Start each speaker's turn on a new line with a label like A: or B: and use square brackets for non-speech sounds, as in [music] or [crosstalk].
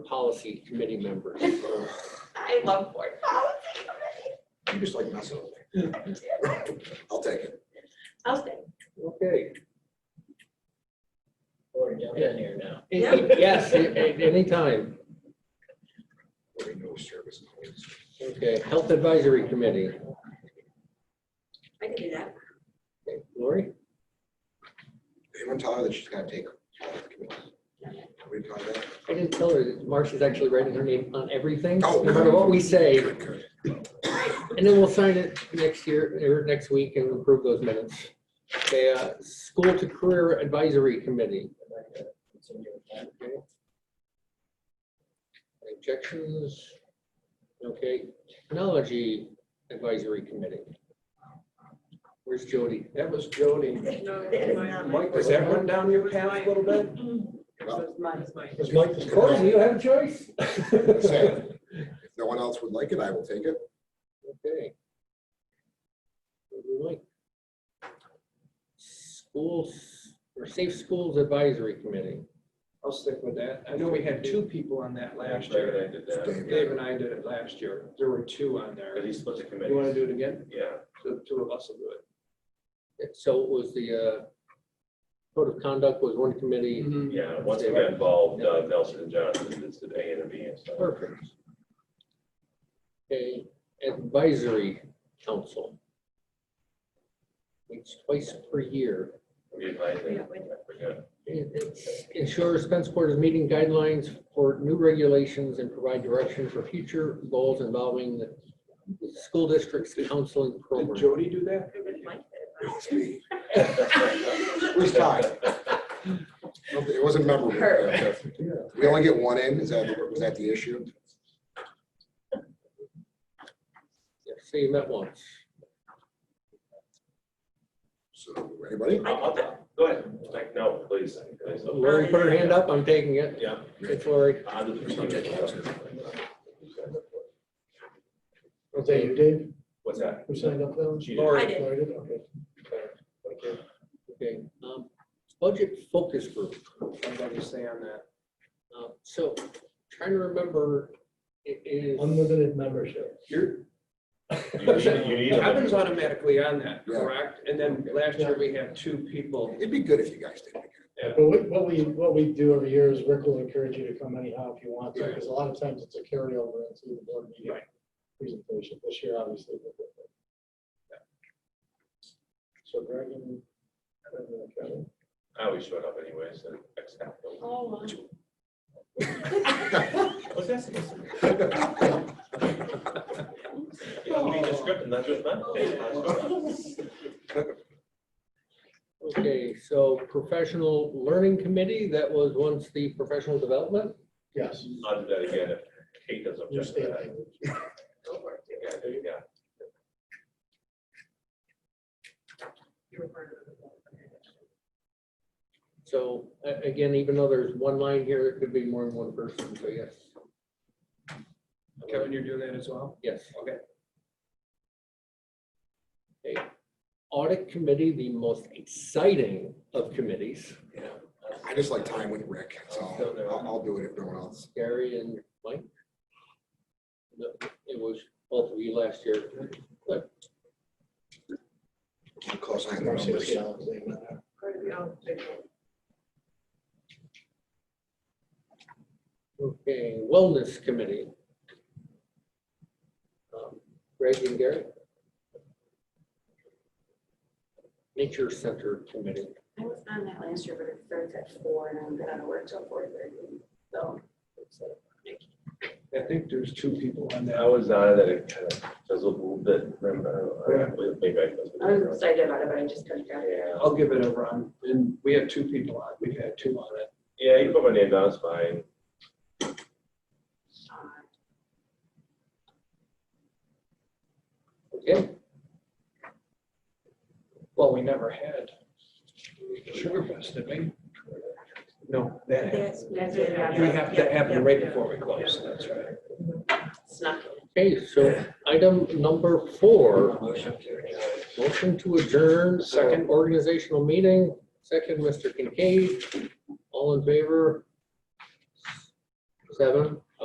A: policy committee members.
B: I love board policy committee.
C: You just like messing with me.
B: Oh, I do.
C: [laughs] I'll take it.
B: I'll say,
A: Okay.
D: Or jump in here now.
A: Yes, a- a- anytime.
C: There ain't no service. calls.
A: Okay, Health Advisory Committee.
B: I can do that.
A: Okay, Lori?
C: Anyone tell her that she's gotta take. We tell her that?
A: I didn't tell her that Marcia's actually writing her name on everything, no
C: Oh,
A: matter what we say.
C: Good, good.
A: And then we'll sign it next year, or next week and approve those minutes. Okay, uh, School to Career Advisory Committee. Okay. Objections? Okay, Technology Advisory Committee. Where's Jody?
E: That was Jody.
B: No,
E: Mike, does that run down your path a little bit? Was Mike the
A: Corey, do
E: first?
A: you have a choice?
C: Say If no one else would like it, I will take it.
A: Okay. What do we like? Schools, or Safe Schools Advisory Committee.
E: I'll stick with that. I know we had two people on that last year.
F: I did that,
C: Dave.
E: Dave and I did it last year. There were two on
F: but
E: there.
F: he split the committee.
E: You want to do it again?
F: Yeah,
E: The two of us will do
A: So it was the uh, Code of Conduct was one committee.
E: it.
F: yeah, once they got involved, uh, Nelson and Johnson, it's the A and the B and stuff.
A: Perfect. Okay, Advisory Council. Meets twice per year.
F: We advised them, I forgot.
A: It- it's- Ensure Spenceport is meeting guidelines for new regulations and provide direction for future goals involving the school district's counseling
E: Did
A: program.
E: Jody do that?
C: It's me. Who's tied? It wasn't memorable.
B: Her.
C: We only get one in. Is that, was that the issue?
A: Yeah, So you met once.
C: So, anybody?
F: [laughs] I'll- I'll- Go ahead, like, no, please. please.
A: Lori put her hand up, I'm taking it.
F: Yeah.
A: It's Lori.
F: I'll do the-
G: Was that you, Dave?
F: What's that?
G: Who signed up though?
F: She did.
B: I did.
G: Lori did, okay.
A: Okay, um, budget focus group.
E: I'm going to stay on that.
A: Uh, So trying to remember, it is,
G: Unlimited membership.
E: You're,
F: You need- you need a-
E: Kevin's automatically on that,
C: Yeah.
E: correct? And then last year we had two people.
C: It'd be good if you guys did. it again.
G: But we, what we, what we do every year is Rick will encourage you to come anyhow if you want to, because a lot of times it's a carryover into the board meeting
E: Right.
G: presentation. This year, obviously. we're different. So Greg and and uh, Kevin.
F: I always showed up anyways, and except.
B: Oh.
F: What's that supposed to mean? You know, read the script and that's just that.
A: okay, so professional learning committee, that was once the professional development.
G: Yes.
F: I'll do that again if Kate doesn't
G: Your
F: object to
G: state
F: that.
G: language.
F: Yeah, there you go.
A: So a- again, even though there's one line here, there could be more than one person, so yes,
E: Kevin, you're doing that as well?
A: yes.
E: Okay.
A: Okay. Audit committee, the most exciting of committees,
C: I just like time with Rick, so I'll, I'll do it if no one else.
A: Gary and Mike. No, It was both of you last year.
C: Keep close eye on the
G: Marcy was
C: numbers.
G: the only one that-
A: Okay, wellness committee. Um, Greg and Gary. Nature Center Committee.
B: I was on that last year, but it starts at four and I'm gonna work till four thirty, so.
E: I think there's two people on
F: I
E: that.
F: was on that it kind of fizzled a little bit, remember? I- Maybe I
B: I was
F: was.
B: excited about it, but I just couldn't get it.
E: I'll give it a run. And we have two people on, we've had two on it.
F: Yeah, you put my name down, it's fine.
A: Okay,
E: Well, we never had. Sugarfest, did we? No, that happened.
B: Yes, that's what happened.
E: We have to have it
B: Yep,
E: right
B: yep,
E: before we close, that's right.
B: yep. Snuck in.
A: okay, so item number four, motion to adjourn.
E: Second.
A: our Organizational meeting, second, Mr. Kincaid. All in favor? seven.